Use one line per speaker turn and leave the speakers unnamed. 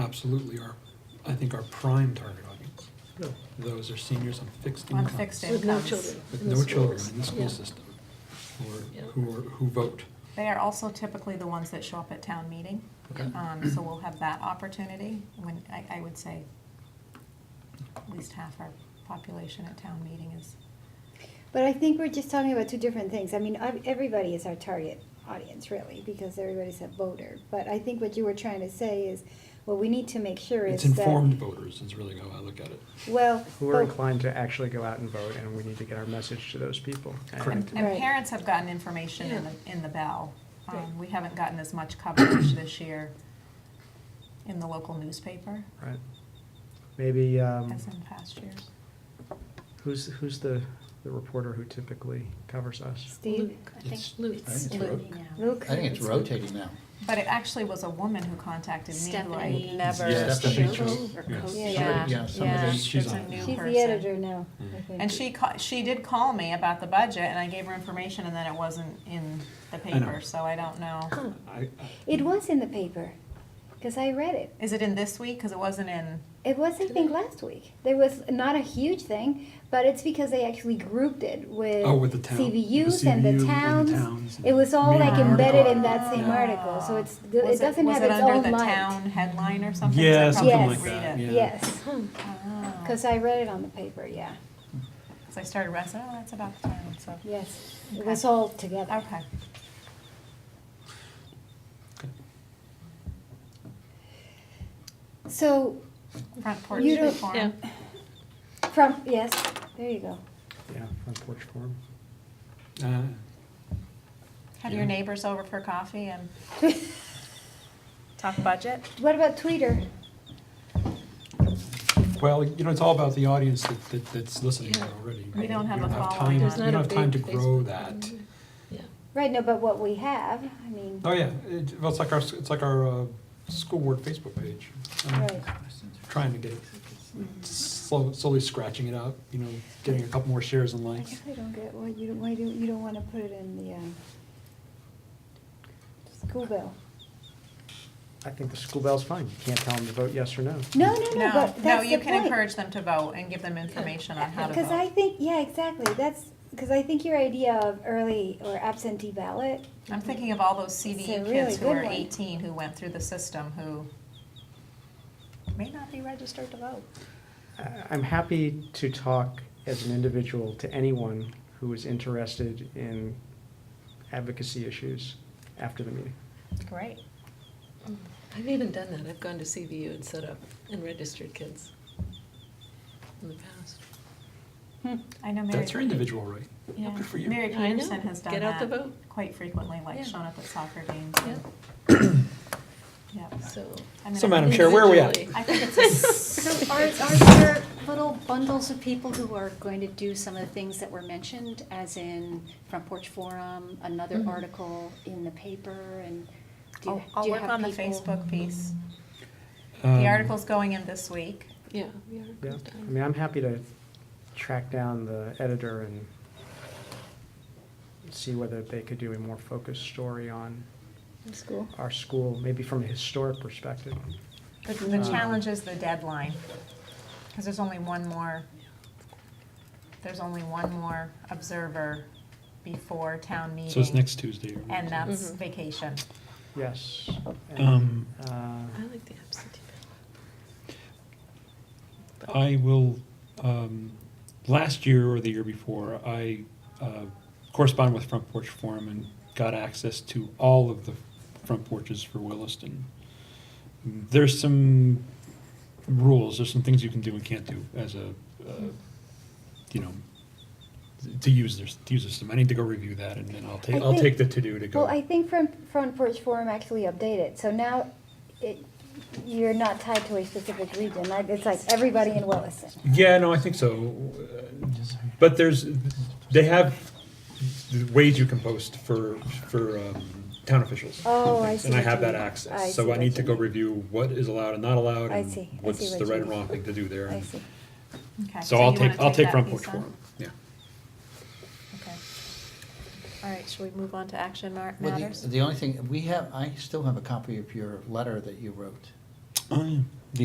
absolutely our, I think our prime target audience.
No.
Those are seniors on fixed
On
income.
fixed
With no
incomes.
children.
With
in the
no children
schools.
in the
Yeah.
school system,
Yeah.
or who are, who vote.
They are also typically the ones that show up at town meeting.
Okay.
Um, so we'll have that opportunity when, I, I would say at least half our population at town meeting is,
But I think we're just talking about two different things. I mean, ev- everybody is our target audience, really, because everybody's a voter. But I think what you were trying to say is, what we need to make sure is
It's
that.
informed voters is really how I look at it.
Well. oh,
who are
but-
inclined to actually go out and vote, and we need to get our message to those people. And
Correct.
and
Right.
parents have gotten information in
Yeah.
the, in the bell.
Right.
Um, we haven't gotten as much coverage this year in the local newspaper
Right. Maybe, um,
as in past years.
who's, who's the, the reporter who typically covers us?
Steve,
I think
It's-
Luke.
I think it's
Luke
Luke.
now.
Luke.
I think it's rotating now.
But it actually was a woman who contacted me who I,
Stephanie. Never
Yeah, Stephanie Chu.
Or
Yeah.
Coach.
Yeah,
yeah. Yeah, somebody-
she's
She's
a
on.
new
She's
person.
the editor now,
Mm-hmm.
I think.
And she ca- she did call me about the budget, and I gave her information, and then it wasn't in the
I know.
paper, so I don't know.
I, I,
It was in the paper, because I read it.
Is it in this week? Because it wasn't in.
It was, I think, last week. There was not a huge thing, but it's because they actually grouped it with
Oh, with the town- with the
CVUs and
CVU
the
and the
towns.
towns and
It was all like
main
embedded in
article.
that same
Yeah.
article, so it's it
Was
doesn't
was
have
it
its
under
own
the
light.
town headline or something? 'Cause I
Yeah,
probably
something
didn't
like
read
that,
it.
yeah.
Yes,
Ah.
because I read it on the paper. Yeah,
'Cause I started wrestling. Oh, that's about the town. So
yes, it
Okay.
was all together.
okay.
So
Front porch
You don't-
reform.
Yeah.
from yes, there you go.
Yeah, on porch forum.
uh,
Have
Yeah.
your neighbors over for coffee and talk budget.
what about Twitter?
Well, you know, it's all about the audience that, that, that's listening
Yeah.
already.
We
right?
don't have
You
a
time-
following.
You
There's
don't
not a
have time to
big
grow
Facebook
that.
Yeah.
Right, no, but what we have, I mean,
Oh, yeah, it, well, it's like our, s- it's like our, uh, school board Facebook page. I'm
Right.
Trying to get, slow- slowly scratching it out, you know, getting a couple more shares and
I
likes.
guess I don't get why you don't why do you don't want to put it in the um, school bill.
I think the school bell's fine. You can't tell them to vote yes or no.
No, no, no,
No,
but that's the point.
no, you can encourage them to vote and give them information on how to vote.
Because I think, yeah, exactly, that's, because I think your idea of early or absentee ballot,
I'm thinking of all those
It's a
CVU
really
kids who
good
are
one.
18 who went through the system who may not be registered to vote.
I- I'm happy to talk as an individual to anyone who is interested in advocacy issues after the meeting.
Great.
I've even done that. I've gone to CVU and set up and registered kids in the past.
Hmm.
I know Mary.
That's your individual right.
yeah.
Good for you.
Mary
I know.
Peterson has done
Get out the
that
vote.
quite frequently,
Yeah.
like showing up at soccer games.
Yeah,
Yep.
so.
I mean,
So,
I
Madam
think-
Chair, where are we at?
individually.
I think it's,
So are, are there little bundles of people who are going to do some of the things that were mentioned, as in Front Porch Forum, another
Mhm.
Mm-hmm.
article in the paper, and do you,
I'll, I'll
do you
work
have
on the
people-
Facebook piece.
Um,
The article's going in this week.
Yeah. we are
Yeah,
done.
I mean, I'm happy to track down the editor and see whether they could do a more focused story on
school,
our school, maybe from a historic perspective.
The, the
Um,
challenge is the deadline, because there's only one more, there's only one more observer before town meeting.
So it's next Tuesday. or-
And um, that's
Mhm.
vacation.
Yes. and,
Um,
uh,
I like the absentee
I will, um, last year or the year before, I uh, corresponded with Front Porch Forum and got access to all of the front porches for Williston. There's some rules, there's some things you can do and can't do as a, uh, you know, to use this, to use the system. I need to go review that and then I'll
I
take, I'll
think-
take the to-do to
well, I
go.
think Front, Front Porch Forum actually updated, so now it, you're not tied to a specific region, like, it's like everybody in Williston.
Yeah, no, I think so. Uh, But there's, they have ways you can post for, for um, town officials.
Oh, I see
And I
what
have
you
that
mean. I
access, so
see
I
what
need to
you
go
mean.
review what is allowed and not allowed,
I
and
see. I see
what's
what
the
you
right and
mean.
wrong thing to do there.
I
and-
see.
Okay.
So I'll
you wanna
take, I'll take
that
front
piece
porch
on?
forum, yeah.
Okay. All right, should we move on to action mar-
Well,
matters?
the, the only thing, we have, I still have a copy of your letter that you wrote.
Oh, yeah.